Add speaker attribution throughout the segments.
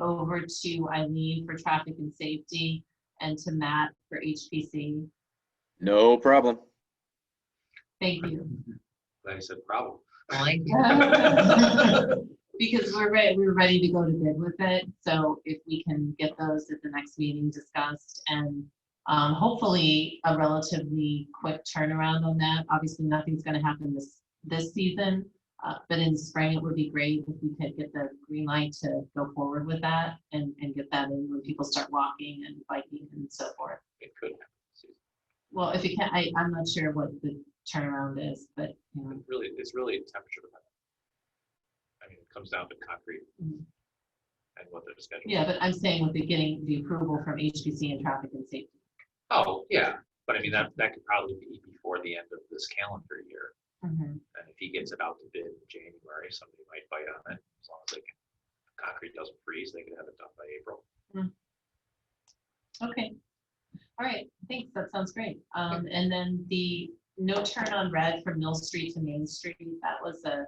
Speaker 1: over to Eileen for traffic and safety and to Matt for HPC.
Speaker 2: No problem.
Speaker 1: Thank you.
Speaker 3: Glad I said problem.
Speaker 4: Like,
Speaker 1: Because we're ready, we're ready to go to bid with it. So if we can get those at the next meeting discussed and um, hopefully a relatively quick turnaround on that. Obviously, nothing's going to happen this, this season. Uh, but in spring, it would be great if we could get the green light to go forward with that and, and get that in when people start walking and biking and so forth.
Speaker 3: It could happen.
Speaker 1: Well, if you can, I, I'm not sure what the turnaround is, but, you know,
Speaker 3: It's Really, it's really a temperature. dependent. I mean, it comes down to concrete
Speaker 1: Mm.
Speaker 3: and what their schedule. is.
Speaker 1: yeah, but I'm saying with the getting the approval from HPC and traffic and safety.
Speaker 3: Oh, yeah, but I mean, that, that could probably be before the end of this calendar year.
Speaker 1: Mhm.
Speaker 4: Mm-hmm.
Speaker 3: And if he gets it out to bid in January, somebody might bite on it, as long as they can, concrete doesn't freeze, they could have it done by April.
Speaker 1: Okay. All right, thanks, that sounds great. Um, and then the no turn on red from Mill Street to Main Street, that was a,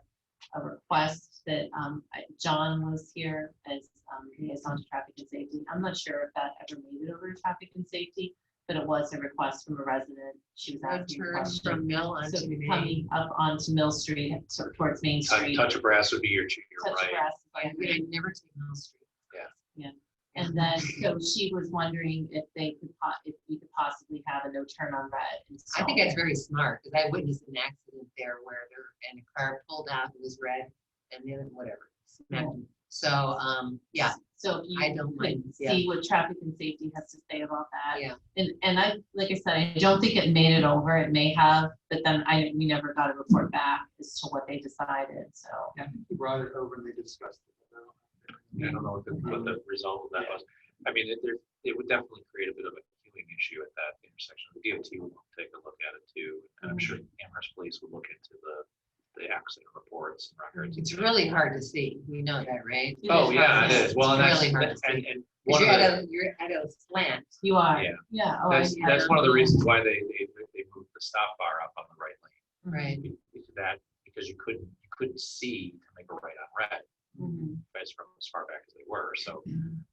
Speaker 1: a request that, um, I- John was here as, um, liaison to traffic and safety. I'm not sure if that ever made it over to traffic and safety, but it was a request from a resident. She was
Speaker 4: no
Speaker 1: asking a
Speaker 4: turn
Speaker 1: question.
Speaker 4: from Mill
Speaker 1: So
Speaker 4: onto Main.
Speaker 1: coming up onto Mill Street, so towards Main
Speaker 3: Touch
Speaker 1: Street.
Speaker 3: touch of brass would be your,
Speaker 1: touch
Speaker 3: you're right.
Speaker 1: grass,
Speaker 4: I
Speaker 1: like,
Speaker 4: mean, I never take Mill Street.
Speaker 3: Yeah.
Speaker 1: Yeah. And then, so she was wondering if they could, po- if we could possibly have a no turn on red.
Speaker 4: I
Speaker 1: installed
Speaker 4: think that's
Speaker 1: there.
Speaker 4: very smart, because I witnessed an accident there where there, and a car pulled out, it was red, and then whatever. smacked me. So, um, yeah,
Speaker 1: So if
Speaker 4: I
Speaker 1: you
Speaker 4: don't
Speaker 1: could
Speaker 4: mind, yeah.
Speaker 1: see what traffic and safety has to say about that.
Speaker 4: Yeah.
Speaker 1: And, and I, like I said, I don't think it made it over. It may have, but then I, we never got a report back as to what they decided, so.
Speaker 5: Yeah, I think he brought it over and they discussed it.
Speaker 3: I don't know what the, what the result of that was. I mean, it, there, it would definitely create a bit of a queuing issue at that intersection. The DOT will take a look at it too. And I'm
Speaker 5: Mm-hmm.
Speaker 1: Mhm.
Speaker 3: sure Amherst Police would look into the, the accident reports and records.
Speaker 4: it's really hard to see, you know that, right?
Speaker 1: It
Speaker 3: Oh,
Speaker 1: is
Speaker 3: yeah,
Speaker 1: hard
Speaker 3: it
Speaker 1: to
Speaker 3: is. Well, and
Speaker 4: It's
Speaker 3: that's,
Speaker 4: really hard to
Speaker 3: and,
Speaker 4: see.
Speaker 3: and one of
Speaker 4: Because
Speaker 3: the,
Speaker 4: you're at a, you're at a slant.
Speaker 1: You are,
Speaker 3: Yeah.
Speaker 1: yeah. oh, I
Speaker 3: that's,
Speaker 1: had
Speaker 3: that's
Speaker 1: it.
Speaker 3: one of the reasons why they, they, they moved the stop bar up on the right lane.
Speaker 4: Right.
Speaker 3: Be- because of That, because you couldn't, you couldn't see to make a right on red,
Speaker 1: Mhm.
Speaker 3: as from as far back as they were, so.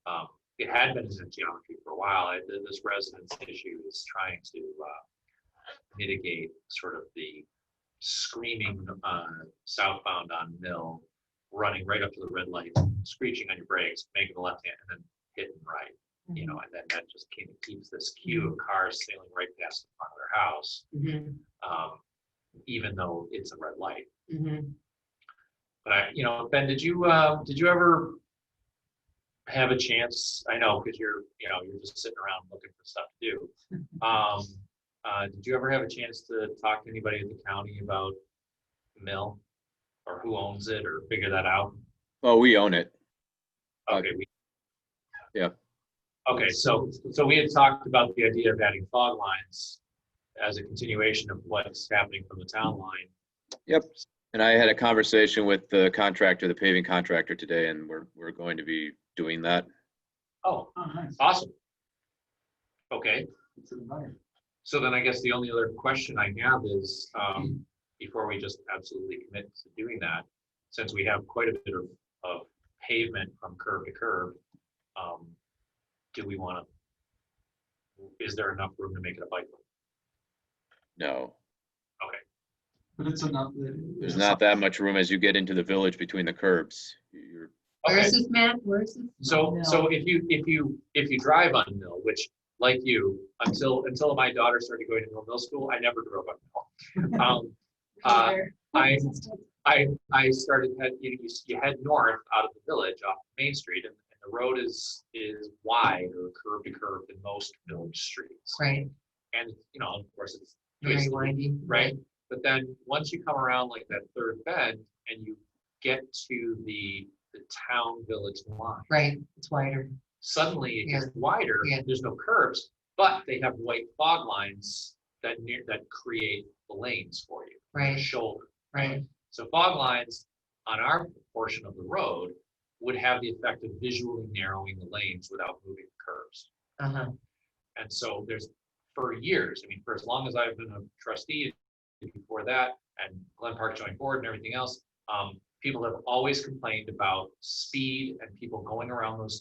Speaker 3: Um, it had been in geometry for a while, and then this residence issue is trying to, uh, mitigate sort of the screaming, uh, southbound on Mill, running right up to the red light, screeching on your brakes, making a left hand, and then hitting right you know, and then that just kind of keeps this queue of cars sailing right past the front of their house,
Speaker 4: Mhm,
Speaker 3: um, even though it's a red light.
Speaker 4: mhm.
Speaker 3: But I, you know, Ben, did you, uh, did you ever have a chance? I know, because you're, you know, you're just sitting around looking for stuff to do. Um, uh, did you ever have a chance to talk to anybody at the county about mill? Or who owns it or figure that out?
Speaker 2: Oh, we own it. Uh,
Speaker 3: Okay. we-
Speaker 2: yeah.
Speaker 3: Okay, so, so we had talked about the idea of adding fog lines as a continuation of what's happening from the town line.
Speaker 2: And I had a conversation with the contractor, the paving contractor today, and we're, we're going to be doing that.
Speaker 3: Oh,
Speaker 5: Oh, nice.
Speaker 3: awesome. Okay,
Speaker 5: It's an environment.
Speaker 3: so then I guess the only other question I have is, um, before we just absolutely commit to doing that, since we have quite a bit of, of pavement from curb to curb, um, do we want to, is there enough room to make it a bike lane?
Speaker 2: No,
Speaker 5: But it's enough. that-
Speaker 2: there's not that much room as you get into the village between the curbs. You're,
Speaker 4: Where
Speaker 3: Okay.
Speaker 4: is this, Matt? Where is this?
Speaker 3: So, so if you, if you, if you drive on Mill, which like you, until, until my daughter started going to Mill Middle School, I never drove on Mill. Um, uh, I, I, I started, head- you, you s- you head north out of the village off Main Street and and the road is, is wide or curb to curb in most village streets.
Speaker 4: Right,
Speaker 3: And, you know, of course, it's,
Speaker 4: very
Speaker 3: it's-
Speaker 4: windy.
Speaker 3: right? But then, once you come around like that third bend and you get to the, the town village line
Speaker 4: Right, it's wider.
Speaker 3: suddenly it
Speaker 4: Yeah.
Speaker 3: gets wider,
Speaker 4: Yeah.
Speaker 3: there's no curves, but they have white fog lines that near, that create the lanes for you, the
Speaker 4: Right,
Speaker 3: shoulder.
Speaker 4: right.
Speaker 3: So fog lines on our portion of the road would have the effect of visually narrowing the lanes without moving the curves.
Speaker 4: Uh huh.
Speaker 3: And so there's, for years, I mean, for as long as I've been a trustee, and before that, and Glen Park Joint Board and everything else, um, people have always complained about speed and people going around those